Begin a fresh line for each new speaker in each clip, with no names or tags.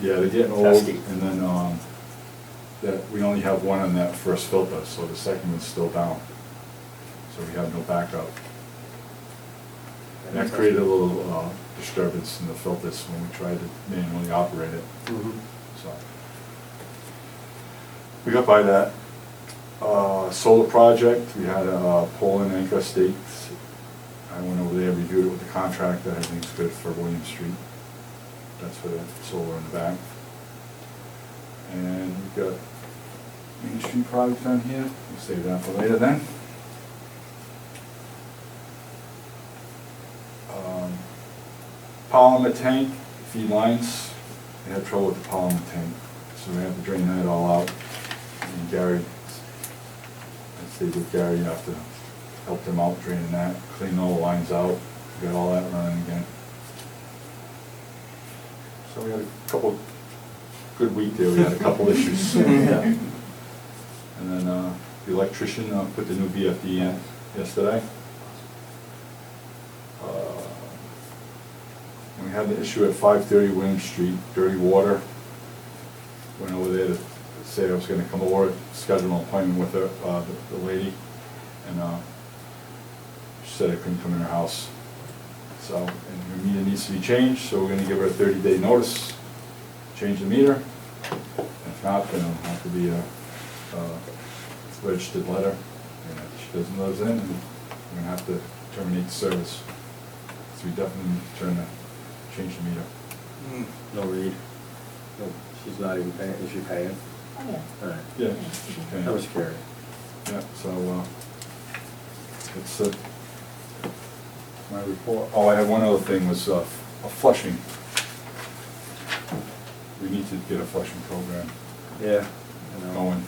Yeah, they're getting old,
Pesky.
and then, um, that, we only have one on that first filter, so the second one's still down. So we have no backup. And that created a little, uh, disturbance in the filters when we tried to manually operate it,
Mhm.
so. We got by that. Uh, solar project, we had a pole in Anchor Estates. I went over there, reviewed it with the contractor, everything's good for William Street. That's for the solar in the back. And we've got Main Street project on here, we'll save that for later then. Um, Polymer tank, feed lines, they had trouble with the polymer tank, so we have to drain that all out. And Gary, I stayed with Gary after, helped him out draining that, clean all the lines out, get all that running again. So we had a couple, good week there, we had a couple issues.
Yeah.
And then, uh, the electrician, uh, put the new VFD in yesterday. Uh, And we had the issue at five thirty William Street, dirty water. Went over there to say I was gonna come over, schedule an appointment with her, uh, the- the lady, and, uh, she said I couldn't come in her house. So, and her meter needs to be changed, so we're gonna give her a thirty-day notice, change the meter. If not, then it'll have to be a, uh, registered letter, and if she doesn't live in, we're gonna have to terminate service. So we definitely need to turn the, change the meter.
Hmm.
No read. No, She's not even paying, is she paying?
Oh, yeah.
All right.
Yeah.
That was scary.
Yeah, so, uh, it's, uh, my report, oh, I had one other thing was, uh, a flushing. We need to get a flushing program
Yeah. I know.
going.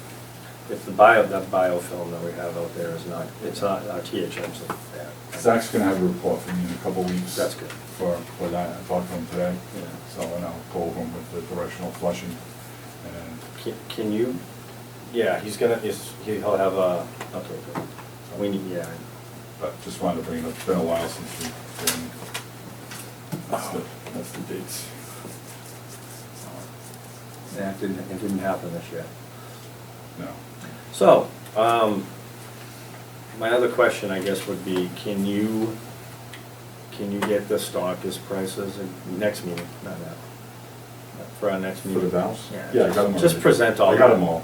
If the bio, that biofilm that we have out there is not, it's not, our THM's are bad.
Zach's gonna have a report for me in a couple weeks.
That's good.
For, for that, I talked to him today.
Yeah.
So, and I'll go over him with the directional flushing, and
Can- Can you, yeah, he's gonna, he's- he'll have a, okay, good. We need, yeah,
But just wanted to bring it up, it's been a while since we've been, that's the, that's the dates.
that didn't, it didn't happen this year.
No.
So, um, my other question, I guess, would be, can you, can you get the stockist prices in next meeting, not now? For our next
For
meeting?
the valves?
Yeah.
Yeah, I got them all.
Just present all.
I got them all.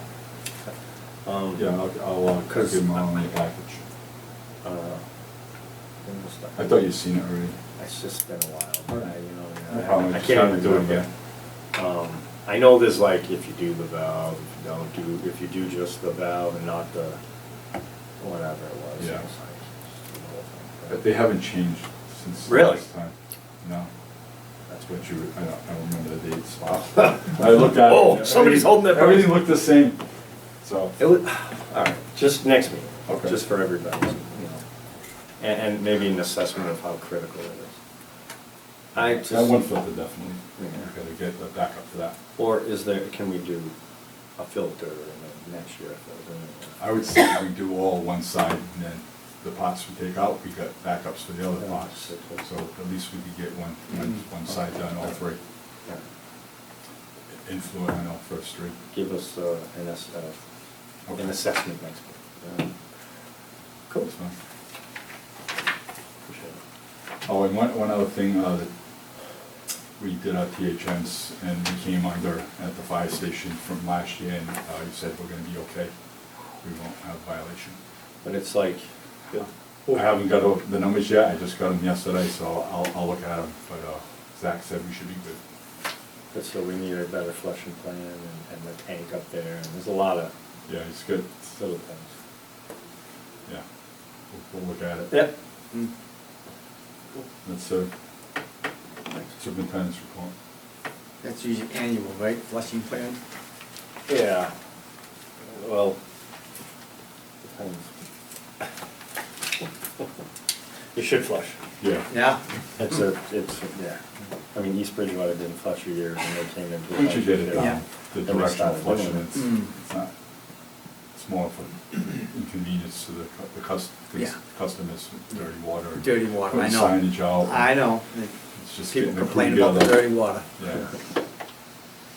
Um,
Yeah, I'll, I'll uh, give
'Cause-
them all in the package.
uh, and the stuff.
I thought you'd seen it already.
It's just been a while, but I,
No
you know,
problem,
I- I
just
can't
trying to
even do it
remember.
yet. Um, I know there's like, if you do the valve, if you don't do, if you do just the valve and not the, whatever it was.
Yeah.
it's like, it's the whole thing,
But they haven't changed since
Really?
last time. No. That's what you, I don't, I don't remember the dates. I looked at it.
Whoa, Oh, somebody's holding that
Everything looked the same, so.
It would, all right, just next meeting,
Okay.
just for everybody, you know, and, and maybe an assessment of how critical it is. I just.
That one filter definitely.
Yeah.
Gotta get the backup for that.
Or is there, can we do a filter and then next year a filter?
I would say we do all one side, and then the pots we take out, we got backups for the other pots. So at least we could get one, one
Mm-hmm.
one side done, all three.
Yeah.
Influent on all first three.
Give us uh, an, ass- uh,
Okay.
an assessment next week. Um, Cool.
That's fine.
Appreciate it.
Oh, and one, one other thing, uh, that we did our THMs and we came under at the fire station from last year and, uh, you said we're gonna be okay. We won't have violation.
But it's like,
I haven't got all the numbers yet, I just got them yesterday, so I'll, I'll look at them, but, uh, Zach said we should be good.
but so we need a better flushing plan and and the tank up there, and there's a lot of
Yeah, it's good,
little things.
yeah, we'll, we'll look at it.
Yep.
Hmm.
That's, uh, superintendent's report.
That's usually annual, right, flushing plan?
Yeah, well, depends. You should flush.
Yeah.
Yeah.
It's a, it's, yeah, I mean, East Bridgewater didn't flush for years and they came into.
Once you get it
Yeah.
down, the
And they
directional
started
flushing,
doing it.
it's,
Mm.
it's not, it's more of an inconvenience to the, cu- the cus, the
Yeah.
customers, with dirty water. and
Dirty water, I know.
putting Signage out.
I know.
It's just
People
getting the crew
complain about the
together.
dirty water.
Yeah,